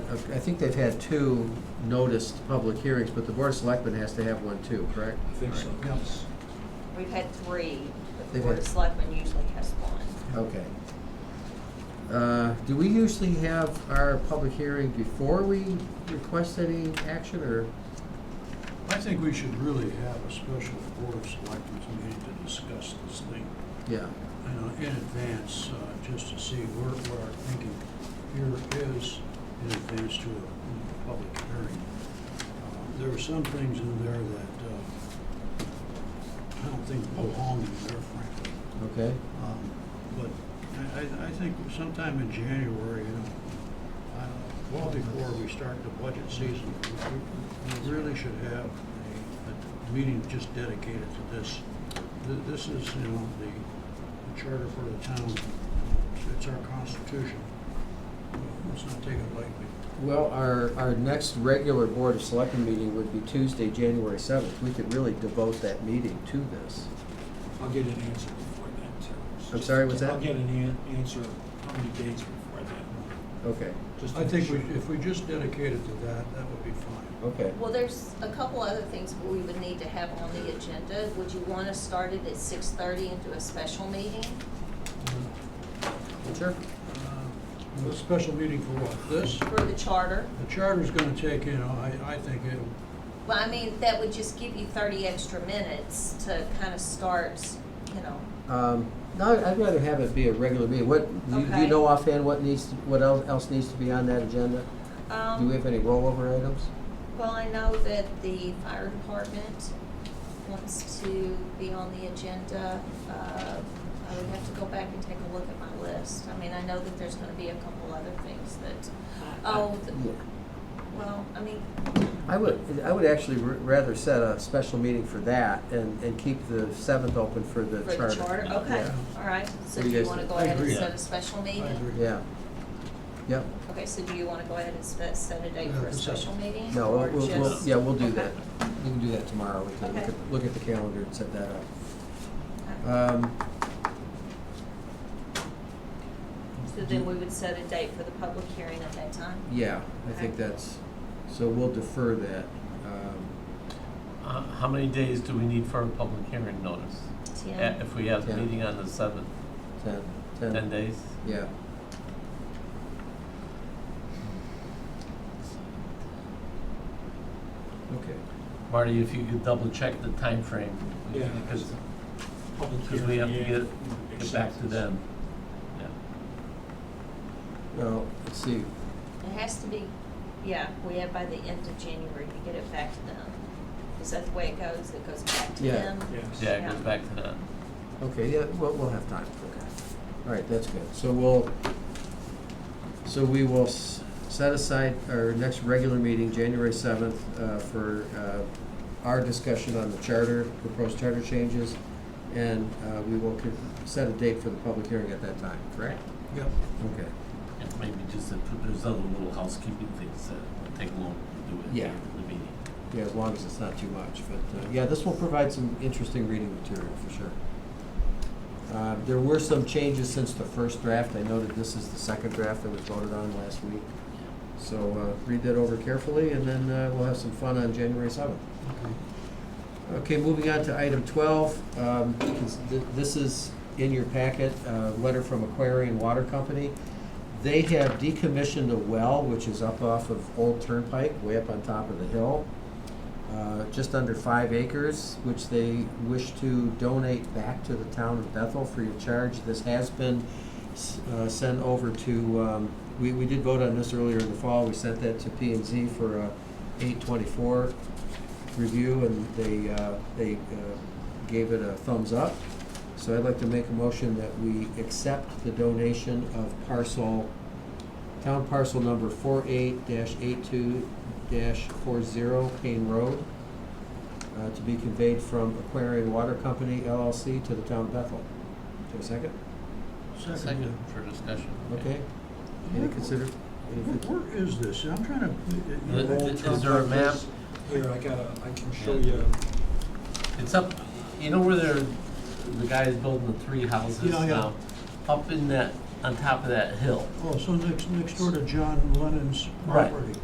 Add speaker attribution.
Speaker 1: I think they've had two noticed public hearings, but the Board of Selectmen has to have one too, correct?
Speaker 2: I think so, yes.
Speaker 3: We've had three, but the
Speaker 1: They've
Speaker 3: Board
Speaker 1: had-
Speaker 3: of Selectmen usually has one.
Speaker 1: Okay. Uh, Do we usually have our public hearing before we request any action, or?
Speaker 2: I think we should really have a special board of selectmen's meeting to discuss this thing,
Speaker 1: Yeah,
Speaker 2: you know, in advance, uh, just to see where, what our thinking here is in advance to a public hearing. Uh, There are some things in there that, uh, I don't think belong in there frankly.
Speaker 1: okay.
Speaker 2: Um, But I, I, I think sometime in January, you know, uh, well before we start the budget season, we- we really should have a, a meeting just dedicated to this. Th- This is, you know, the the charter for the town, it's our constitution. Let's not take it lightly.
Speaker 1: Well, our, our next regular Board of Selectmen meeting would be Tuesday, January seventh. We could really devote that meeting to this.
Speaker 4: I'll get an answer before then, too.
Speaker 1: I'm sorry, what's that?
Speaker 4: I'll get an an- answer, how many days before then?
Speaker 1: Okay,
Speaker 4: just to
Speaker 2: I think we,
Speaker 4: make sure.
Speaker 2: if we just dedicate it to that, that would be fine.
Speaker 1: okay.
Speaker 3: Well, there's a couple other things we would need to have on the agenda. Would you want to start it at six thirty and do a special meeting?
Speaker 1: Sure.
Speaker 2: Uh, A special meeting for what, this?
Speaker 3: For the charter?
Speaker 2: The charter's gonna take, you know, I, I think it,
Speaker 3: Well, I mean, that would just give you thirty extra minutes to kind of start, you know.
Speaker 1: Um, No, I'd rather have it be a regular meeting. What, do you- do you
Speaker 3: Okay.
Speaker 1: know offhand what needs, to- what el- else needs to be on that agenda? Do we
Speaker 3: Um,
Speaker 1: have any rollover items?
Speaker 3: well, I know that the fire department wants to be on the agenda. Uh, I would have to go back and take a look at my list. I mean, I know that there's gonna be a couple other things that, oh, th- well, I mean,
Speaker 1: I would, I would actually r- rather set a special meeting for that and, and keep the seventh open for the
Speaker 3: for the charter, okay,
Speaker 1: Yeah.
Speaker 3: all right. So
Speaker 1: What do
Speaker 3: do
Speaker 1: you
Speaker 3: you
Speaker 1: guys
Speaker 3: wanna
Speaker 1: think?
Speaker 3: go
Speaker 2: I
Speaker 3: ahead and
Speaker 2: agree.
Speaker 3: set a special meeting?
Speaker 2: agree.
Speaker 1: Yeah. Yep,
Speaker 3: Okay, so do you wanna go ahead and set, set a date
Speaker 2: Yeah,
Speaker 3: for a
Speaker 2: the
Speaker 3: special
Speaker 2: seventh.
Speaker 3: meeting?
Speaker 1: no,
Speaker 3: or
Speaker 1: we'll- we'll, we'll,
Speaker 3: just-
Speaker 1: yeah, we'll do
Speaker 3: Okay.
Speaker 1: that. We can do that tomorrow. We can look
Speaker 3: Okay.
Speaker 1: at, look at the calendar and set that up.
Speaker 3: Okay.
Speaker 1: Um,
Speaker 3: So then we would set a date for the public hearing at that time?
Speaker 1: Yeah, I think that's, so we'll defer that. Um,
Speaker 5: Uh, How many days do we need for a public hearing notice? A-
Speaker 3: Tim?
Speaker 5: If we have a
Speaker 1: Ten.
Speaker 5: meeting on the seventh,
Speaker 1: Ten, ten.
Speaker 5: ten days?
Speaker 1: Yeah. Okay.
Speaker 5: Marty, if you could double check the time frame,
Speaker 4: Yeah.
Speaker 5: Because,
Speaker 4: Public
Speaker 5: because we have to
Speaker 4: hearing,
Speaker 5: get,
Speaker 4: yeah,
Speaker 5: get back to
Speaker 4: acceptance.
Speaker 5: them. Yeah.
Speaker 1: Now, let's see,
Speaker 3: It has to be, yeah, we have by the end of January to get it back to them. Is that the way it goes? It goes back to
Speaker 1: Yeah.
Speaker 3: them?
Speaker 4: Yes.
Speaker 5: Yeah, it goes
Speaker 3: Yeah.
Speaker 5: back to them.
Speaker 1: okay, yeah, we'll, we'll have time, okay. All right, that's good. So we'll, so we will s- set aside our next regular meeting, January seventh, uh, for, uh, our discussion on the charter, proposed charter changes. And, uh, we will con- set a date for the public hearing at that time, correct?
Speaker 2: Yep.
Speaker 1: Okay.
Speaker 5: And maybe just, if there's other little housekeeping things that will take long to do it
Speaker 1: Yeah.
Speaker 5: here in the meeting.
Speaker 1: Yeah, as long as it's not too much, but, uh, yeah, this will provide some interesting reading material for sure. Uh, there were some changes since the first draft, I noted this is the second draft that was voted on last week. So, uh, read that over carefully, and then, uh, we'll have some fun on January seventh.
Speaker 2: Okay.
Speaker 1: Okay, moving on to item twelve, um, is th- this is in your packet, a letter from Aquarian Water Company. They have decommissioned a well, which is up off of Old Turnpike, way up on top of the hill, uh, just under five acres, which they wish to donate back to the town of Bethel free of charge. This has been s- uh, sent over to, um, we, we did vote on this earlier in the fall, we sent that to P and Z for a eight twenty-four review, and they, uh, they uh, gave it a thumbs up. So I'd like to make a motion that we accept the donation of parcel, town parcel number four eight dash eight two dash four zero Payne Road, uh, to be conveyed from Aquarian Water Company LLC to the town of Bethel. Do I second?
Speaker 5: Second for discussion.
Speaker 1: Okay? Any consider, any
Speaker 2: Where-
Speaker 1: con-
Speaker 2: Where is this? I'm trying to. uh,
Speaker 5: Is-
Speaker 4: Roll
Speaker 5: is
Speaker 4: Trump
Speaker 5: there a
Speaker 4: like
Speaker 5: map?
Speaker 4: this. Here, I got a, I can show
Speaker 5: Yeah.
Speaker 4: you.
Speaker 5: It's up, you know where they're, the guy is building the three houses
Speaker 2: Yeah, yeah.
Speaker 5: now? Up in that on top of that hill.
Speaker 2: Oh, so next, next door to John Lennon's
Speaker 1: Right.
Speaker 2: property.